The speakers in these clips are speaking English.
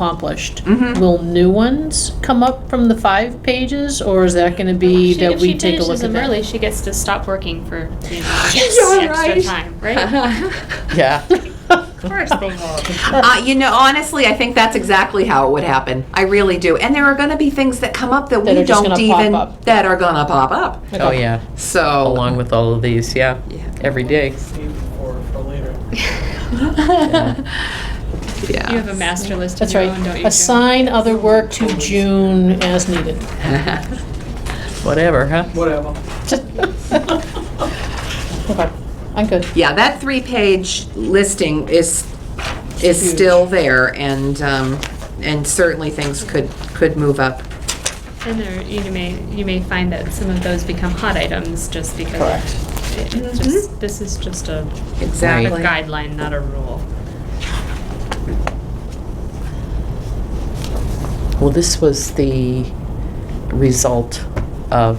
accomplished, will new ones come up from the five pages, or is that gonna be She- that we take a If she look finishes at them early, that? she gets to stop working for, you know, You're extra right. time, right? Yeah. Of course they will. Uh, you know, honestly, I think that's exactly how it would happen. I really do. And there are going to be things that come up that, That we are just don't gonna pop even up. that are going to pop up. Oh, yeah, So along with all of these, yeah, Yeah. every day. Save for, for later. yeah. You have a master list of That's your own, don't right. you? Jo? Assign other work to June as needed. Whatever, huh? Whatever. Okay, I'm good. Yeah, that three-page listing is, is Huge. still there, and, um, and certainly things could, could move up. And there, you may, you may find that some of those become hot items just because. Correct. it- Mm-hmm. it's just- This is just a a Exactly. guideline, not a rule. Well, this was the result of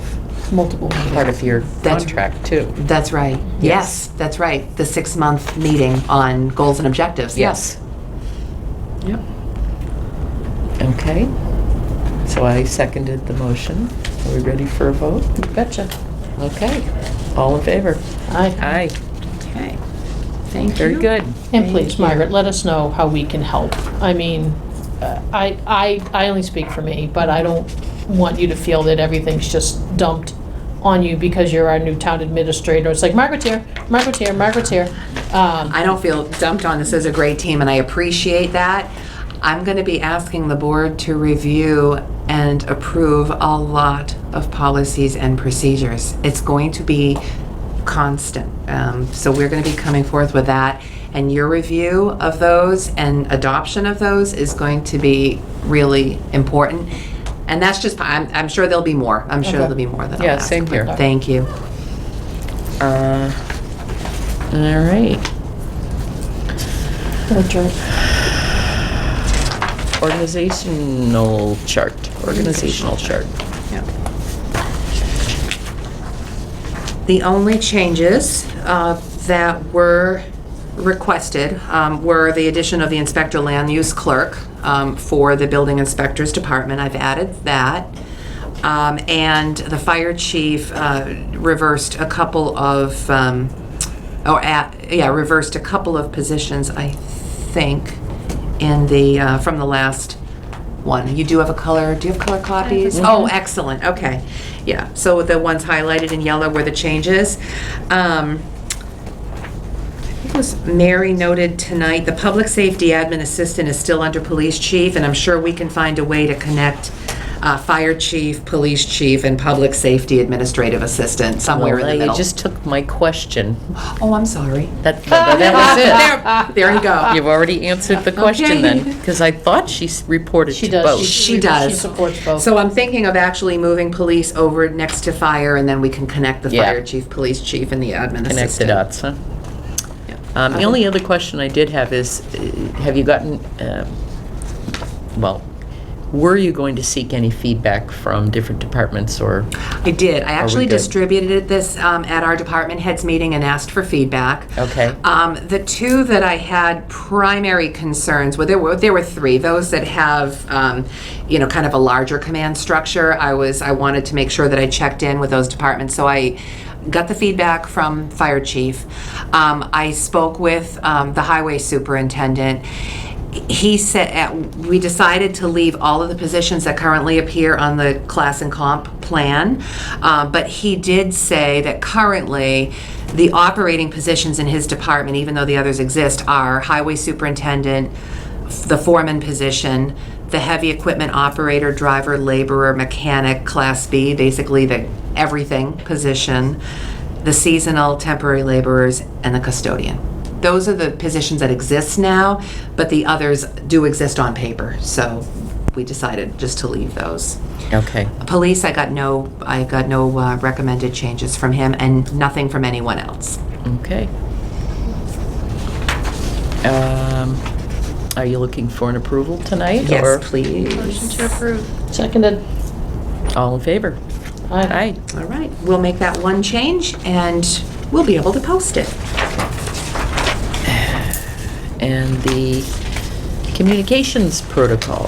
Multiple. part of your That's- contract, too. That's right. Yes, that's right. The six-month meeting on goals and objectives, yes. Yep. Okay. So I seconded the motion. Are we ready for a vote? Betcha. Okay. All in favor? Aye. Aye. Okay. Thank you. Very good. And please, Margaret, let us know how we can help. I mean, uh, I, I, I only speak for me, but I don't want you to feel that everything's just dumped on you because you're our new town administrator. It's like, Margaret's here, Margaret's here, Margaret's here. Um, I don't feel dumped on. This is a great team, and I appreciate that. I'm going to be asking the board to review and approve a lot of policies and procedures. It's going to be constant. Um, so we're going to be coming forth with that, and your review of those and adoption of those is going to be really important. And that's just, I'm, I'm sure there'll be more. I'm sure Okay. there'll be more than Yeah, I'll ask. same here. Thank you. Uh, All right. Richard, Organizational chart, organizational chart. The only changes uh, that were requested um, were the addition of the inspector land use clerk um, for the building inspector's department. I've added that. Um, And the fire chief uh, reversed a couple of, um, or, at- yeah, reversed a couple of positions, I think, in the, uh, from the last one. You do have a color, do you have color copies? Oh, excellent, okay. Yeah, so the ones highlighted in yellow were the changes. Um, I think it was Mary noted tonight, the public safety admin assistant is still under police chief, and I'm sure we can find a way to connect uh, fire chief, police chief, and public safety administrative assistant somewhere in the Well, middle. You just took my question. Oh, I'm sorry. That, that was it. There you go. You've already answered the question then, because I thought she s- reported she to does. both. She does. She supports both. So I'm thinking of actually moving police over next to fire, and then we can connect the Yeah. fire chief, police chief, and the admin assistant. Connect the dots, huh? Um, The only other question I did have is, uh, have you gotten, um, well, were you going to seek any feedback from different departments or? I did. I actually good? distributed it this um, at our department heads meeting and asked for feedback. Okay. Um, the two that I had primary concerns, well, there were there were three. Those that have, um, you know, kind of a larger command structure. I was I wanted to make sure that I checked in with those departments, so I got the feedback from fire chief. Um, I spoke with um, the highway superintendent he said, at- we decided to leave all of the positions that currently appear on the class and comp plan, um, but he did say that currently, the operating positions in his department, even though the others exist, are highway superintendent, the foreman position, the heavy equipment operator, driver, laborer, mechanic, class B, basically the everything position, the seasonal temporary laborers, and the custodian. Those are the positions that exist now, but the others do exist on paper, so we decided just to leave those. Okay, Police, I got no, I got no uh, recommended changes from him and nothing from anyone else. okay. Um, Are you looking for an approval tonight? or Yes, please. Motion to approve. Seconded. All in favor? Aye. Aye. All right, we'll make that one change and we'll be able to post it. And the communications protocol.